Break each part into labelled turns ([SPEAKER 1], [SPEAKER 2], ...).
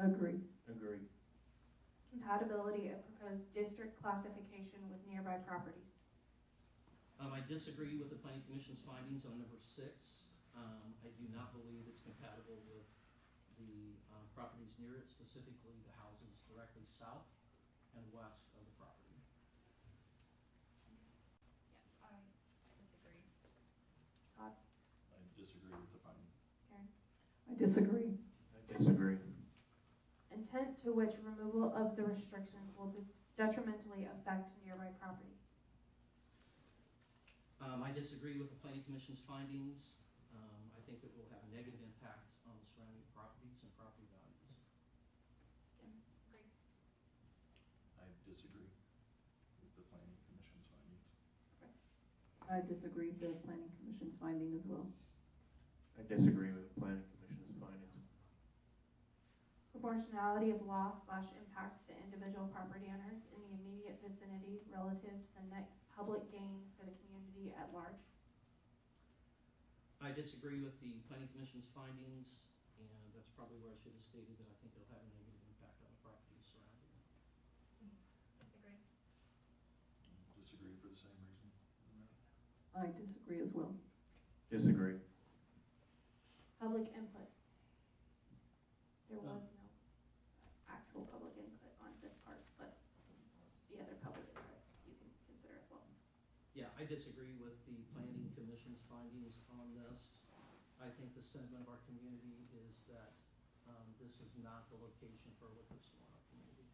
[SPEAKER 1] Agree.
[SPEAKER 2] Agree.
[SPEAKER 3] Compatibility of proposed district classification with nearby properties.
[SPEAKER 4] Um, I disagree with the planning commission's findings on number six. Um, I do not believe it's compatible with the, um, properties near it, specifically the houses directly south and west of the property.
[SPEAKER 5] Yes, I disagree.
[SPEAKER 3] Todd,
[SPEAKER 2] I disagree with the finding.
[SPEAKER 3] Karen?
[SPEAKER 1] I disagree.
[SPEAKER 2] I disagree.
[SPEAKER 3] Intent to which removal of the restrictions will detrimentally affect nearby properties.
[SPEAKER 4] Um, I disagree with the planning commission's findings. Um, I think it will have a negative impact on the surrounding properties and property values.
[SPEAKER 3] Yes, great.
[SPEAKER 2] I disagree with the planning commission's findings.
[SPEAKER 1] I disagree with the planning commission's finding as well.
[SPEAKER 6] I disagree with the planning commission's findings.
[SPEAKER 3] Proportionality of loss slash impact to individual property owners in the immediate vicinity relative to the net public gain for the community at large.
[SPEAKER 4] I disagree with the planning commission's findings, and that's probably where I should have stated that I think it'll have a negative impact on the properties surrounding it.
[SPEAKER 5] Disagree.
[SPEAKER 2] Disagree for the same reason.
[SPEAKER 1] I disagree as well.
[SPEAKER 6] Disagree.
[SPEAKER 3] Public input. There
[SPEAKER 4] No.
[SPEAKER 3] was no actual public input on this part, but the other public input you can consider as well.
[SPEAKER 4] Yeah, I disagree with the planning commission's findings on this. I think the sentiment of our community is that um, this is not the location for what liquor store in our community.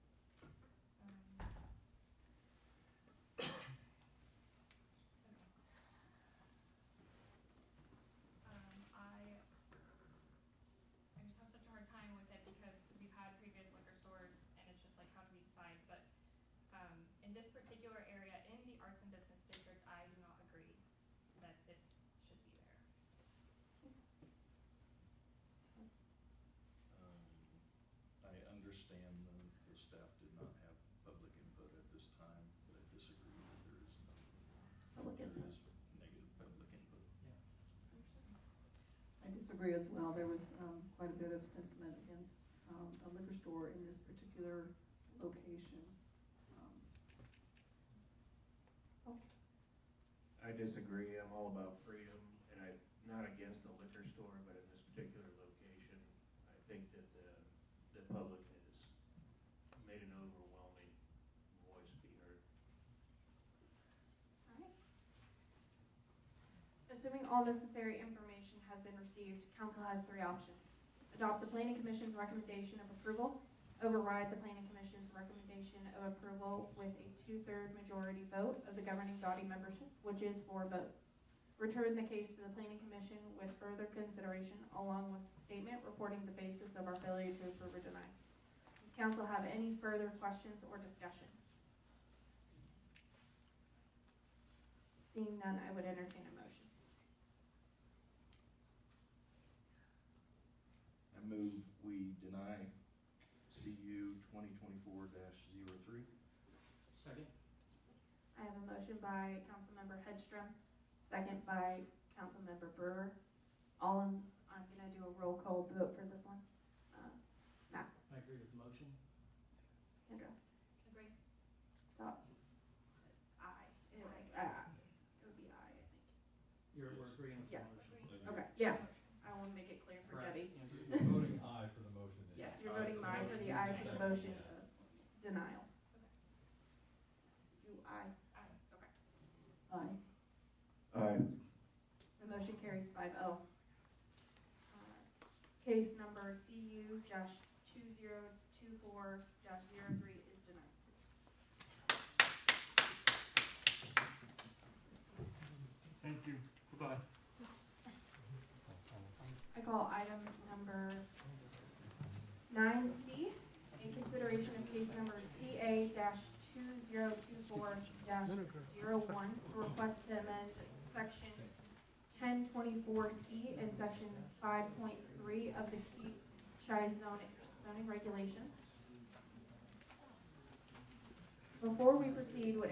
[SPEAKER 5] Um, okay. Um, I, I just have such a hard time with it because we've had previous liquor stores and it's just like, how do we decide? But, um, in this particular area, in the arts and business district, I do not agree that this should be there.
[SPEAKER 2] Um, I understand the, the staff did not have public input at this time, but I disagree that there is no.
[SPEAKER 3] Public
[SPEAKER 2] There
[SPEAKER 3] input.
[SPEAKER 2] is negative public input.
[SPEAKER 1] I disagree as well. There was um, quite a bit of sentiment against um, a liquor store in this particular location. Um,
[SPEAKER 6] I disagree. I'm all about freedom, and I'm not against the liquor store, but in this particular location, I think that the, the public has made an overwhelming voice be heard.
[SPEAKER 3] Alright. Assuming all necessary information has been received, council has three options. Adopt the planning commission's recommendation of approval, override the planning commission's recommendation of approval with a two-third majority vote of the governing body membership, which is four votes. Return the case to the planning commission with further consideration along with a statement reporting the basis of our failure to approve or deny. Does council have any further questions or discussion? Seeing none, I would entertain a motion.
[SPEAKER 2] I move we deny CU twenty twenty-four 3
[SPEAKER 4] Second?
[SPEAKER 3] I have a motion by Councilmember Hedstrom, second by Councilmember Brewer. All in, I'm gonna do a roll call vote for this one. Uh, Matt,
[SPEAKER 4] I agree with the motion.
[SPEAKER 3] Kendra,
[SPEAKER 5] Agree.
[SPEAKER 3] Todd. Aye, It would- uh, it would be aye, I think.
[SPEAKER 4] You're, we're agreeing with the
[SPEAKER 3] Yeah.
[SPEAKER 4] motion.
[SPEAKER 5] Agree.
[SPEAKER 3] Okay, yeah, I wanna make it clear for
[SPEAKER 4] Right,
[SPEAKER 3] Debbie.
[SPEAKER 4] Andrew?
[SPEAKER 7] You're voting aye for the motion. then.
[SPEAKER 3] Yes, you're voting aye for the aye for the motion of denial. You aye,
[SPEAKER 5] Aye.
[SPEAKER 3] okay.
[SPEAKER 1] Aye.
[SPEAKER 6] Aye.
[SPEAKER 3] The motion carries five oh. Uh, Case number CU dash two zero two four dash zero three is denied.
[SPEAKER 6] Thank you. Goodbye.
[SPEAKER 3] I call item number nine C, in consideration of case number TA two zero two four dash to request to amend section ten twenty-four C and section five point three of the Keachai zoning, zoning regulations. Before we proceed, would